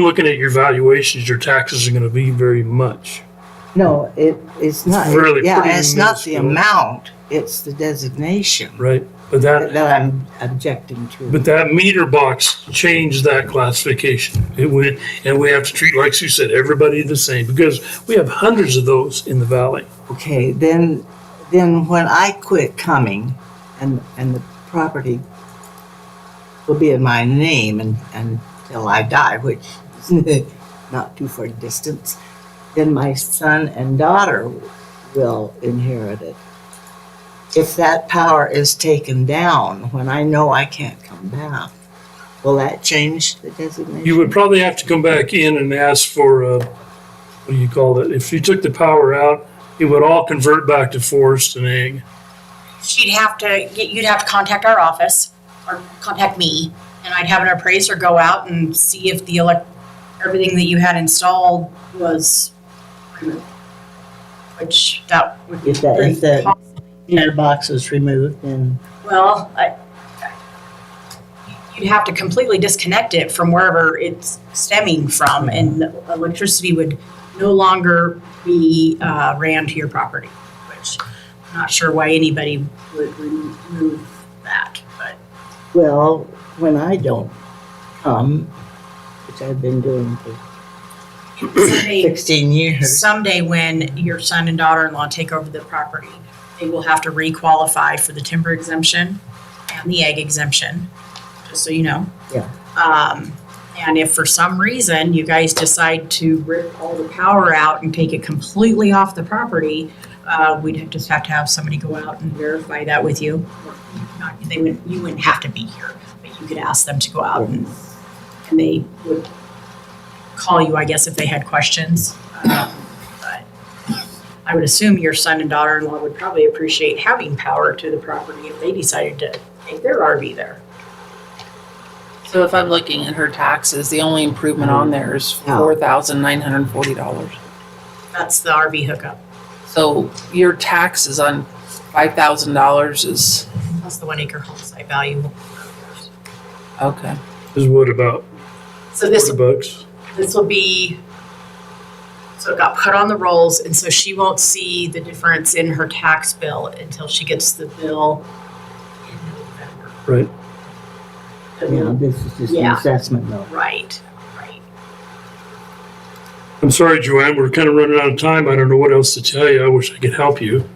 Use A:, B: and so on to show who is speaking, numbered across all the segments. A: looking at your valuations, your taxes are going to be very much.
B: No, it, it's not.
A: really
B: Yeah,
A: pretty
B: it's not the
A: minuscule.
B: amount, it's the designation
A: Right. But that,
B: that I'm objecting to.
A: but that meter box changed that classification. It went, and we have to treat, like Sue said, everybody the same because we have hundreds of those in the valley.
B: Okay, then, then when I quit coming and, and the property will be in my name and, until I die, which is not too far distance, then my son and daughter will inherit it. If that power is taken down, when I know I can't come back, will that change the designation?
A: You would probably have to come back in and ask for, uh, what do you call it? If you took the power out, it would all convert back to forest and ag.
C: She'd have to, you'd have to contact our office or contact me and I'd have an appraiser go out and see if the elec, everything that you had installed was removed. Which that would be.
B: If that, if
C: pretty
B: the
C: cost-
B: meter box is removed, then
C: Well, I, you'd have to completely disconnect it from wherever it's stemming from and the electricity would no longer be, uh, ran to your property, which I'm not sure why anybody would remove that, but.
B: Well, when I don't come, which I've been doing for
C: someday,
B: 16 years,
C: someday when your son and daughter-in-law take over the property, they will have to requalify for the timber exemption and the egg exemption, just so you know.
B: Yeah.
C: Um, and if for some reason you guys decide to rip all the power out and take it completely off the property, uh, we'd have- just have to have somebody go out and verify that with you. Or not- They wouldn't, you wouldn't have to be here, but you could ask them to go out and, and they would call you, I guess, if they had questions. Um, But I would assume your son and daughter-in-law would probably appreciate having power to the property if they decided to take their RV there.
D: So if I'm looking at her taxes, the only improvement on there is
B: Yeah.
D: four thousand nine hundred and forty dollars.
C: That's the RV hookup.
D: So your taxes on five thousand dollars is,
C: That's the one acre home site value.
D: okay.
A: Is what about
C: So this,
A: forty bucks?
C: this will be, so it got put on the rolls and so she won't see the difference in her tax bill until she gets the bill in November.
A: Right.
C: The
B: yeah,
C: bill-
B: this is just an
C: Yeah.
B: assessment though.
C: Right, right.
A: I'm sorry, Joanne, we're kind of running out of time. I don't know what else to tell you. I wish I could help you.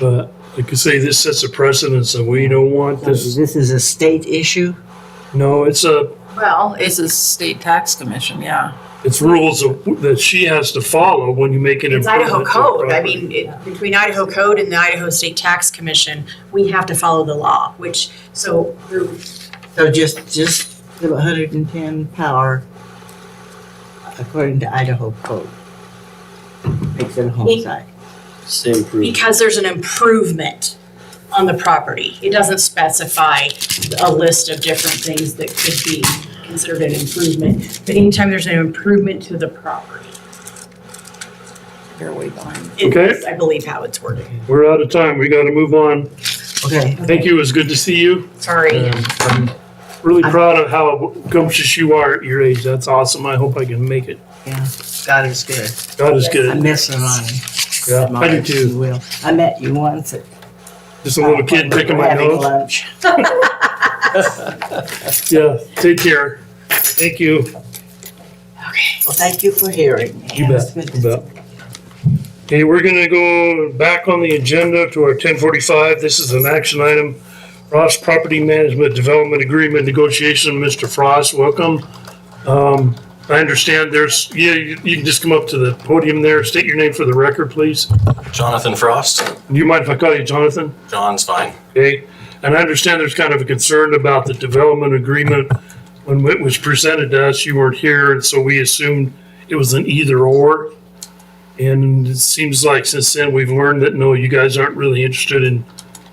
A: But like I say, this sets a precedence and we don't want
B: This
A: this.
B: is a state issue?
A: No, it's a,
C: Well,
D: It's
C: it's,
D: a state tax commission, yeah.
A: it's rules of- that she has to follow when you make an
C: it's
A: improvement.
C: Idaho
A: to a
C: code. I
A: property.
C: mean, it- between Idaho code and the Idaho State Tax Commission, we have to follow the law, which, so there-
B: So just, just the 110 power according to Idaho code. Makes it a home
C: It-
B: site.
E: Same proof.
C: because there's an improvement on the property. It doesn't specify a list of different things that could be considered an improvement. But anytime there's an improvement to the property,
D: You're way behind.
C: it's, I believe how it's worded.
A: We're out of time. We got to move on.
B: Okay,
A: Thank you. It was good to see you.
C: Sorry.
A: And I'm really proud of how gumptious you are at your age. That's awesome. I hope I can make it.
B: yeah, God is good.
A: God is
B: I
A: good.
B: miss Ronnie.
A: Yeah, I do
B: Marge, you
A: too.
B: will. I met you once at.
A: Just a little kid picking my
B: having
A: nose.
B: lunch.
A: Yeah, take care. Thank you.
B: Well, thank you for hearing me.
A: You bet, you bet. Okay, we're gonna go back on the agenda to our ten forty-five. This is an action item. Ross Property Management Development Agreement Negotiation, Mr. Frost, welcome. Um, I understand there's, yeah, you, you can just come up to the podium there, state your name for the record, please.
E: Jonathan Frost.
A: Do you mind if I call you Jonathan?
E: John's fine.
A: Okay, and I understand there's kind of a concern about the development agreement. When it was presented to us, you weren't here, and so we assumed it was an either or. And it seems like since then, we've learned that, no, you guys aren't really interested in,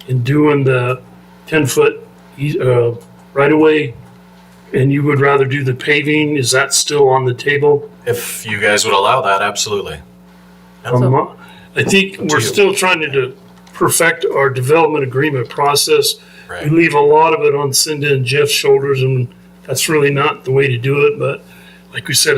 A: in doing the ten-foot, uh, right-of-way. And you would rather do the paving, is that still on the table?
E: If you guys would allow that, absolutely.
A: Um, I think
E: Up to
A: we're
E: you.
A: still trying to de- perfect our development agreement process. We
E: Right.
A: leave a lot of it on Cindy and Jeff's shoulders, and that's really not the way to do it, but like we said,